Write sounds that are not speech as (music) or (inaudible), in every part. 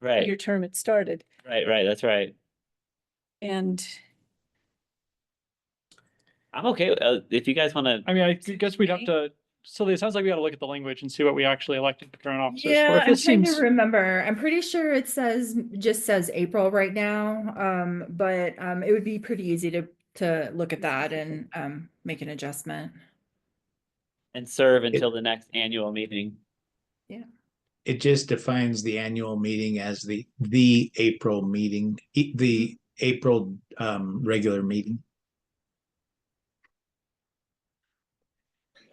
Right, your term had started right, right. That's right. and I'm okay. with- Uh, if you guys want to, I mean, I guess we'd have to, so it sounds like we gotta look at the language and see what we actually elected the current officers for. Yeah, If I'm it trying seems, to remember. I'm pretty sure it says, just says April right now. Um, but, um, it would be pretty easy to, to look at that and, um, make an adjustment. and serve until the next annual meeting. It just defines the annual meeting as the, the April meeting, e- the April um regular meeting.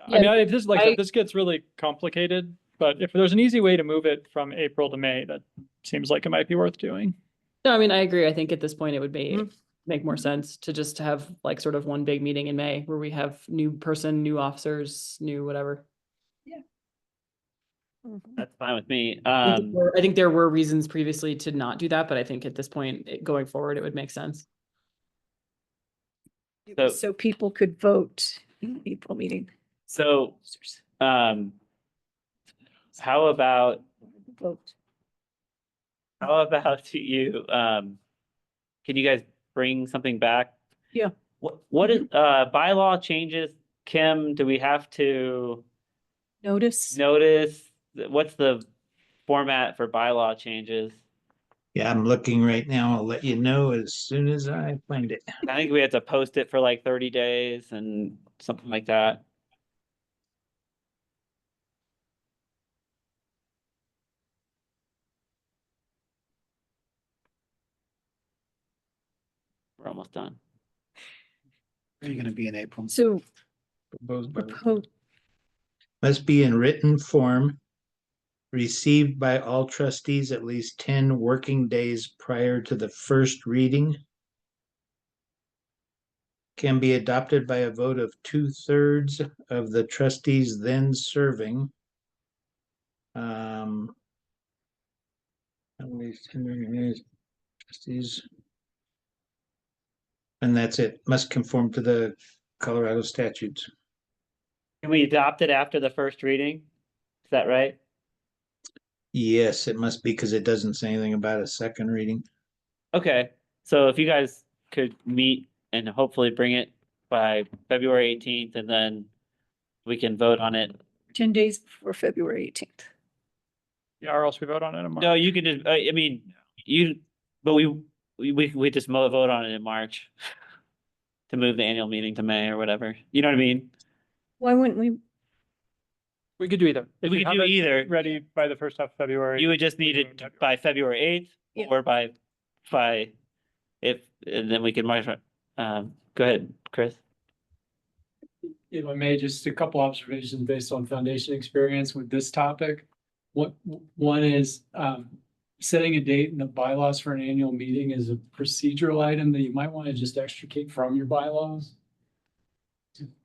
I mean, if this, like, I- this gets really complicated, but if there's an easy way to move it from April to May, that seems like it might be worth doing. No, I mean, I agree. I think at this point it would be, Mm-hmm. Mhm. make more sense to just have like sort of one big meeting in May where we have new person, new officers, new whatever. That's fine with me. I think Um, there- I think there were reasons previously to not do that, but I think at this point, it- going forward, it would make sense. it was So- so people could vote in the April meeting. so, um, how about, Vote. how about (laughs) you, um, can you guys bring something back? Yeah. What, what is, uh, bylaw changes? Kim, do we have to Notice, notice? What's the format for bylaw changes? Yeah, I'm looking right now. I'll let you know as soon as I find it. I think we had to post it for like thirty days and something like that. We're almost done. Are you gonna be in April? so Proposed by the- propose, Must be in written form. Received by all trustees at least ten working days prior to the first reading. Can be adopted by a vote of two-thirds of the trustees then serving. Um. At least 10 working days, Trustees. And that's it. Must conform to the Colorado statutes. Can we adopt it after the first reading? Is that right? Yes, it must be because it doesn't say anything about a second reading. Okay, so if you guys could meet and hopefully bring it by February eighteenth and then we can vote on it. ten days before February eighteenth. Yeah, or else we vote on it in March. No, you can just, I, I mean, you, but we, we, we we just mo- vote on it in March. (laughs) To move the annual meeting to May or whatever, you know what I mean? Why wouldn't we? We could do either. If We you could have do it either, Ready by the first half of February. you would just we need do it in it February. by February eighth Yeah. or by, by, if, and then we can march, um, go ahead, Chris. if I may, just a couple observations based on foundation experience with this topic. What, one is, um, setting a date in the bylaws for an annual meeting is a procedural item that you might want to just extricate from your bylaws.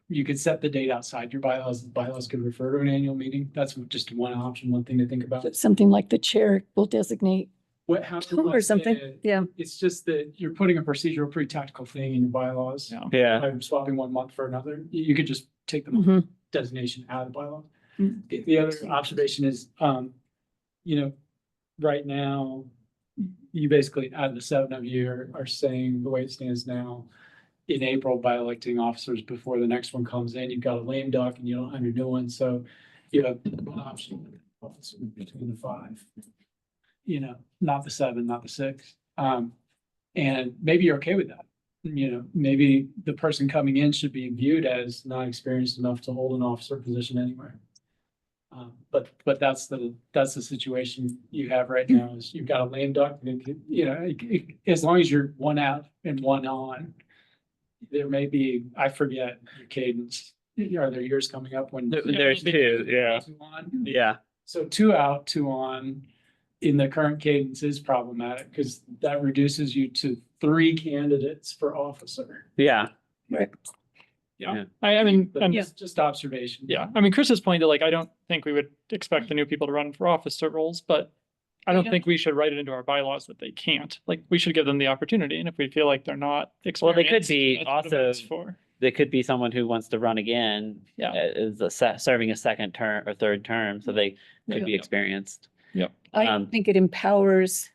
You could set the date outside your bylaws, the bylaws could refer to an annual meeting, that's just one option, one thing to think about. Something like the chair will designate What, how. (laughs) to or look something, at it. yeah. It's just that you're putting a procedural, pretty tactical thing in your bylaws. Yeah. Yeah, By swapping one month for another, you, you could just take them Mhm. designation out of the bylaw. Mm. The, the other observation is, um, you know, right now, you basically, out of the seven of you are, are saying the way it stands now, in April by electing officers before the next one comes in, you've got a lame duck and you don't have your new one, so you have one option officer between the five. You know, not the seven, not the six. Um, and maybe you're okay with that you know, maybe the person coming in should be viewed as not experienced enough to hold an officer position anywhere. Um, but, but that's the, that's the situation you have right now is you've got a lame duck, and it can- you know, it- it- as long as you're one out and one on. There may be, I forget your cadence, are there years coming up when? There- there's two, yeah. Two on? yeah, So two out, two on in the current cadence is problematic because that reduces you to three candidates for officer. yeah. I, I mean, and That's just observation. Yeah, I mean, Chris's point that like, I don't think we would expect the new people to run for office cert roles, but I don't don't- think we should write it into our bylaws that they can't. Like, we should give them the opportunity, and if we feel like they're not Well, they could experienced, be that's what it also- is for. There could be someone who wants to run again. Yeah. uh, Is a se- serving a second term or third term, so they Yeah. could be experienced. Yep. I Um, think it empowers